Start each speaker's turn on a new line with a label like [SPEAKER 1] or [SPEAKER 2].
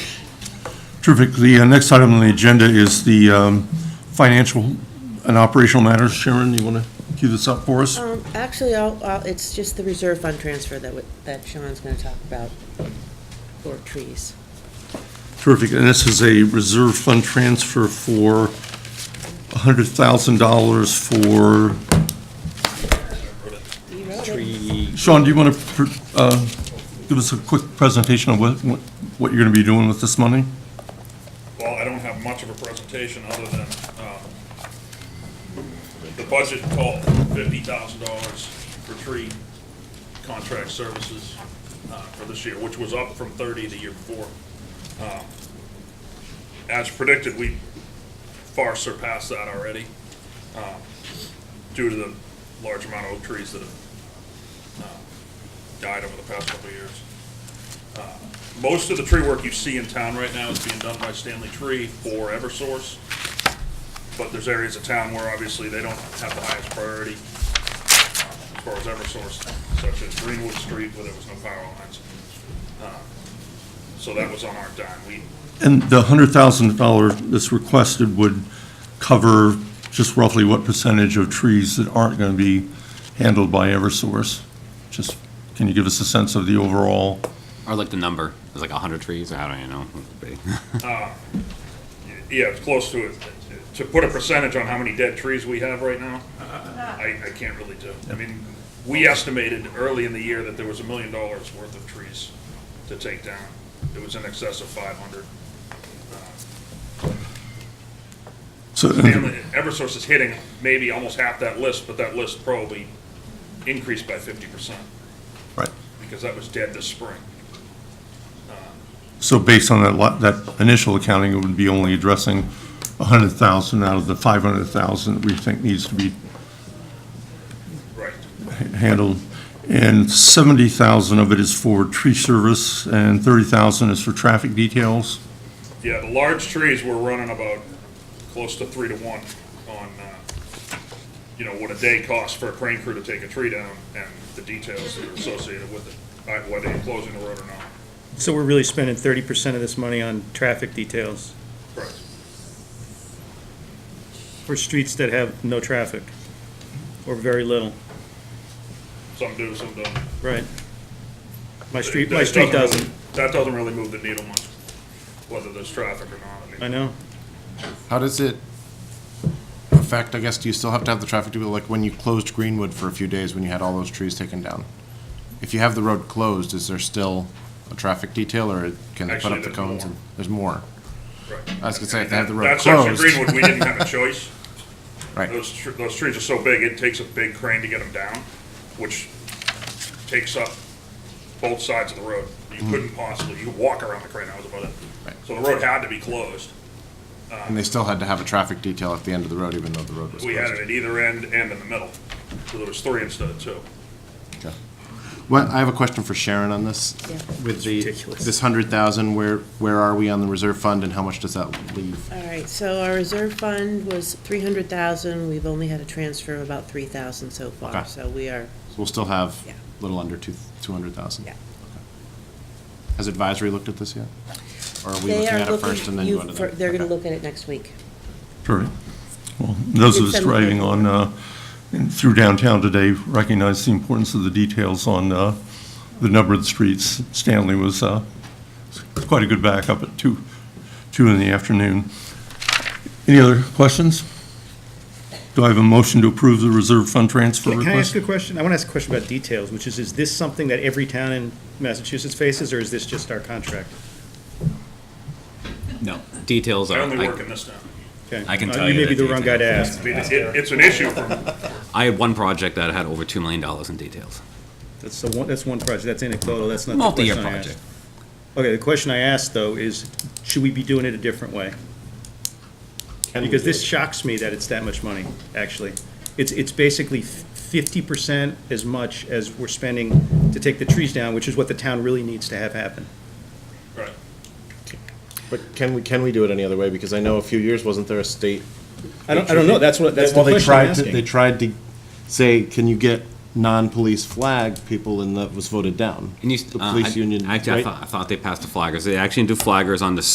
[SPEAKER 1] Terrific. The uh, next item on the agenda is the um, financial and operational matters. Sharon, you want to cue this up for us?
[SPEAKER 2] Um, actually, I'll, I'll, it's just the reserve fund transfer that, w- that Sean's gonna talk about for trees.
[SPEAKER 1] Terrific. And this is a reserve fund transfer for $100,000 for,
[SPEAKER 2] You wrote it.
[SPEAKER 3] Tree,
[SPEAKER 1] Sean, do you want to give us a quick presentation of what, what- what you're going to be doing with this money?
[SPEAKER 4] Well, I don't have much of a presentation other than, um, the budget called fifty thousand dollars for tree contract services, uh, for this year, which was up from thirty the year before. Um, As predicted, we far surpassed that already, um, due to the large amount of oak trees that have, uh, died over the past couple of years. Most of the tree work you see in town right now is being done by Stanley Tree for Eversource. But there's areas of town where obviously they don't have the highest priority uh, as far as Eversource, such as Greenwood Street where there was no power lines. Uh, So that was on our dime. We,
[SPEAKER 1] And the $100,000 that's requested would cover just roughly what percentage of trees that aren't going to be handled by Eversource? Just, can you give us a sense of the overall?
[SPEAKER 3] or like the number, it's like a hundred trees, I don't even know. what it would be.
[SPEAKER 4] yeah, it's close to it. To put a percentage on how many dead trees we have right now, I, I can't really do. I mean, we estimated early in the year that there was a million dollars worth of trees to take down. It was in excess of five hundred.
[SPEAKER 1] So,
[SPEAKER 4] Stanley, Eversource is hitting maybe almost half that list, but that list probably increased by fifty percent,
[SPEAKER 1] right.
[SPEAKER 4] because that was dead this spring.
[SPEAKER 1] So based on that, lo- that initial accounting, it would be only addressing 100,000 out of the 500,000 that we think needs to be
[SPEAKER 4] Right.
[SPEAKER 1] handled. And 70,000 of it is for tree service and 30,000 is for traffic details.
[SPEAKER 4] Yeah, the large trees were running about close to three to one on, uh, you know, what a day costs for a crane crew to take a tree down and the details that are associated with it, uh, whether you're closing the road or not.
[SPEAKER 5] So we're really spending thirty percent of this money on traffic details
[SPEAKER 4] Correct.
[SPEAKER 5] for streets that have no traffic or very little,
[SPEAKER 4] Some do, some don't.
[SPEAKER 5] right? My street,
[SPEAKER 4] That-
[SPEAKER 5] my
[SPEAKER 4] that
[SPEAKER 5] street
[SPEAKER 4] really-
[SPEAKER 5] doesn't,
[SPEAKER 4] That doesn't really move the needle much, whether there's traffic or not. mean,
[SPEAKER 5] I know.
[SPEAKER 6] How does it affect, I guess, do you still have to have the traffic to be, like, when you closed Greenwood for a few days, when you had all those trees taken down? If you have the road closed, is there still a traffic detail, or can they put
[SPEAKER 4] Actually,
[SPEAKER 6] up the
[SPEAKER 4] there's
[SPEAKER 6] cones?
[SPEAKER 4] more.
[SPEAKER 6] and- There's more.
[SPEAKER 4] Right.
[SPEAKER 6] I was gonna say, if they have the road
[SPEAKER 4] That's actually
[SPEAKER 6] closed.
[SPEAKER 4] Greenwood, we didn't have a choice.
[SPEAKER 6] Right,
[SPEAKER 4] Those, tr- those trees are so big, it takes a big crane to get them down, which takes up both sides of the road. You couldn't possibly, you could walk around the crane, that was about it.
[SPEAKER 6] Mm. Right.
[SPEAKER 4] So the road had to be closed.
[SPEAKER 6] and they still had to have a traffic detail at the end of the road, even though the road was
[SPEAKER 4] We had it
[SPEAKER 6] closed.
[SPEAKER 4] at either end and in the middle, so there was three instead of two.
[SPEAKER 6] Okay. Well, I have a question for Sharon on this.
[SPEAKER 2] Yeah.
[SPEAKER 6] With the,
[SPEAKER 5] ridiculous.
[SPEAKER 6] this hundred thousand, where, where are we on the reserve fund, and how much does that leave?
[SPEAKER 2] All right, so our reserve fund was three hundred thousand, we've only had a transfer of about three thousand so far,
[SPEAKER 6] Okay.
[SPEAKER 2] so we are,
[SPEAKER 6] We'll still have
[SPEAKER 2] Yeah.
[SPEAKER 6] a little under two, two hundred thousand?
[SPEAKER 2] yeah.
[SPEAKER 6] Has advisory looked at this yet? Or are we
[SPEAKER 2] They
[SPEAKER 6] looking
[SPEAKER 2] are
[SPEAKER 6] at it first and then
[SPEAKER 2] you-
[SPEAKER 6] go to
[SPEAKER 2] for-
[SPEAKER 6] them?
[SPEAKER 2] They're gonna
[SPEAKER 6] Okay.
[SPEAKER 2] look at it next week.
[SPEAKER 1] Sure. Well, those of us
[SPEAKER 2] It's a-
[SPEAKER 1] driving on, uh, in- through downtown today recognize the importance of the details on uh, the numbered streets. Stanley was uh, quite a good backup at two, two in the afternoon. Any other questions? Do I have a motion to approve the reserve fund transfer
[SPEAKER 5] Can I ask
[SPEAKER 1] request?
[SPEAKER 5] a question? I want to ask a question about details, which is, is this something that every town in Massachusetts faces, or is this just our contract?
[SPEAKER 3] No, details
[SPEAKER 4] I
[SPEAKER 3] are,
[SPEAKER 4] only work
[SPEAKER 3] I,
[SPEAKER 4] in this town.
[SPEAKER 5] Okay.
[SPEAKER 3] I can
[SPEAKER 5] Uh,
[SPEAKER 3] tell you
[SPEAKER 5] You may be
[SPEAKER 3] the
[SPEAKER 5] the wrong guy to ask.
[SPEAKER 4] I mean, it- it's an issue from,
[SPEAKER 3] I had one project that had over two million dollars in details,
[SPEAKER 5] That's the one, that's one project, that's anecdotal, that's not the
[SPEAKER 3] multi-year
[SPEAKER 5] question I asked.
[SPEAKER 3] project.
[SPEAKER 5] Okay, the question I asked, though, is, should we be doing it a different way? Because this shocks me that it's that much money, actually. It's, it's basically fifty percent as much as we're spending to take the trees down, which is what the town really needs to have happen.
[SPEAKER 4] right.
[SPEAKER 6] But can we, can we do it any other way? Because I know a few years, wasn't there a state?
[SPEAKER 5] I don't, I don't know, that's what, that's the
[SPEAKER 6] Well, they
[SPEAKER 5] question I'm
[SPEAKER 6] tried to- They
[SPEAKER 5] asking.
[SPEAKER 6] tried to say, can you get non-police flag people, and that was voted down.
[SPEAKER 3] And you,
[SPEAKER 6] The
[SPEAKER 3] uh,
[SPEAKER 6] police
[SPEAKER 3] I-
[SPEAKER 6] union,
[SPEAKER 3] Actually, I
[SPEAKER 6] right?
[SPEAKER 3] thought, I thought they passed the flaggers, they actually do flaggers on the